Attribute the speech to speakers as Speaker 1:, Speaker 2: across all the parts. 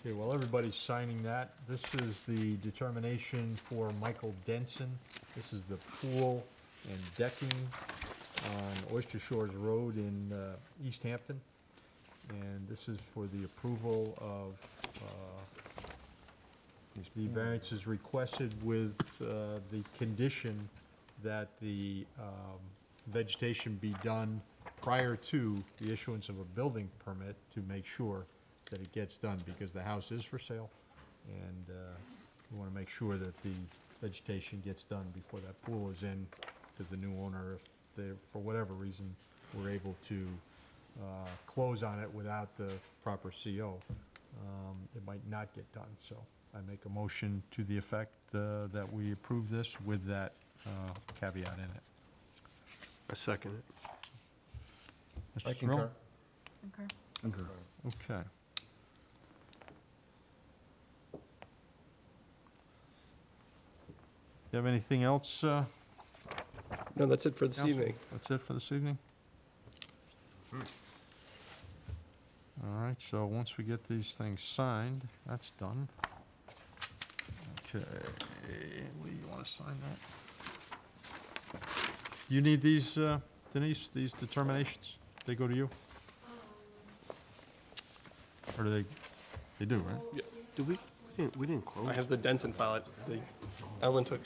Speaker 1: Okay, while everybody's signing that, this is the determination for Michael Denson. This is the pool and decking on Oyster Shores Road in uh, East Hampton. And this is for the approval of uh, the variances requested with uh, the condition that the um, vegetation be done prior to the issuance of a building permit to make sure that it gets done, because the house is for sale, and uh, we want to make sure that the vegetation gets done before that pool is in, because the new owner, if they, for whatever reason, were able to uh, close on it without the proper CO, um, it might not get done. So I make a motion to the effect uh, that we approve this with that uh, caveat in it.
Speaker 2: I second it.
Speaker 1: Mr. Cirillo?
Speaker 3: Okay.
Speaker 1: Okay. You have anything else? uh,
Speaker 2: No, that's it for this
Speaker 1: Counsel?
Speaker 2: evening.
Speaker 1: That's it for this evening? Hmm. All right, so once we get these things signed, that's done. Okay, Lee, you want to sign that? You need these, uh, Denise, these determinations? They go to you? Or do they, they do, right?
Speaker 4: Do we, we didn't, we didn't
Speaker 2: I
Speaker 4: close?
Speaker 2: have the Denson file, it- the, Ellen took,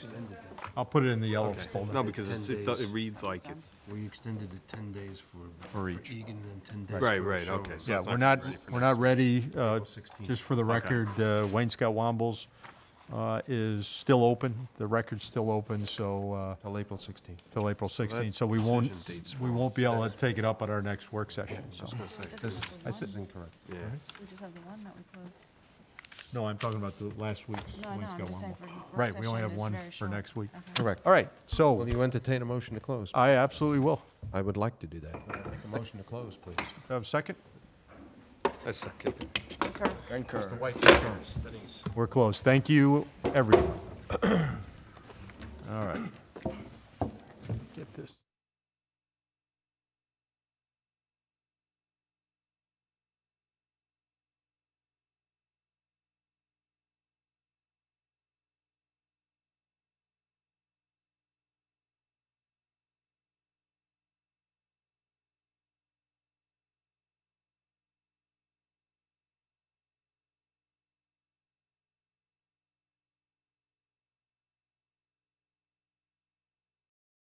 Speaker 1: I'll put it in the yellow
Speaker 4: Okay.
Speaker 1: folder.
Speaker 4: No, because it's-
Speaker 5: Ten
Speaker 4: it, do-
Speaker 5: days.
Speaker 4: it reads like it's,
Speaker 5: We extended it 10 days for
Speaker 1: For
Speaker 5: for
Speaker 1: each.
Speaker 5: Egan and 10 days for
Speaker 4: Right, right,
Speaker 5: Sherwood.
Speaker 4: okay, so
Speaker 1: Yeah,
Speaker 4: it's
Speaker 1: we're
Speaker 4: not
Speaker 1: not,
Speaker 4: gonna be ready for
Speaker 1: we're not ready, uh,
Speaker 5: April 16th.
Speaker 1: just for the record, uh, Wayne Scott Wombles, uh, is still open, the record's still open, so, uh,
Speaker 5: Till April 16th.
Speaker 1: till April
Speaker 2: that
Speaker 1: sixteenth, so we won't,
Speaker 2: decision date's
Speaker 1: we won't be able to take it up at our next work session, so.
Speaker 5: This is,
Speaker 3: Just have
Speaker 5: this
Speaker 3: the
Speaker 5: is
Speaker 3: one.
Speaker 5: incorrect.
Speaker 4: yeah.
Speaker 3: We just have the one that we closed.
Speaker 1: No, I'm talking about the last week's
Speaker 3: No, I
Speaker 1: Wayne
Speaker 3: know, I'm
Speaker 1: Scott
Speaker 3: just saying
Speaker 1: Wombles.
Speaker 3: for work
Speaker 1: Right, we only
Speaker 3: session,
Speaker 1: have
Speaker 3: it's
Speaker 1: one
Speaker 3: very
Speaker 1: for
Speaker 3: short.
Speaker 1: next week.
Speaker 3: Okay.
Speaker 5: Correct.
Speaker 1: All right,
Speaker 5: Will
Speaker 1: so,
Speaker 5: you entertain a motion to close?
Speaker 1: I absolutely will.
Speaker 5: I would like to do that. Make a motion to close, please.
Speaker 1: Have a second?
Speaker 2: I second it.
Speaker 3: Okay.
Speaker 5: Mr. White,
Speaker 1: We're closed. Thank you, everyone. All right.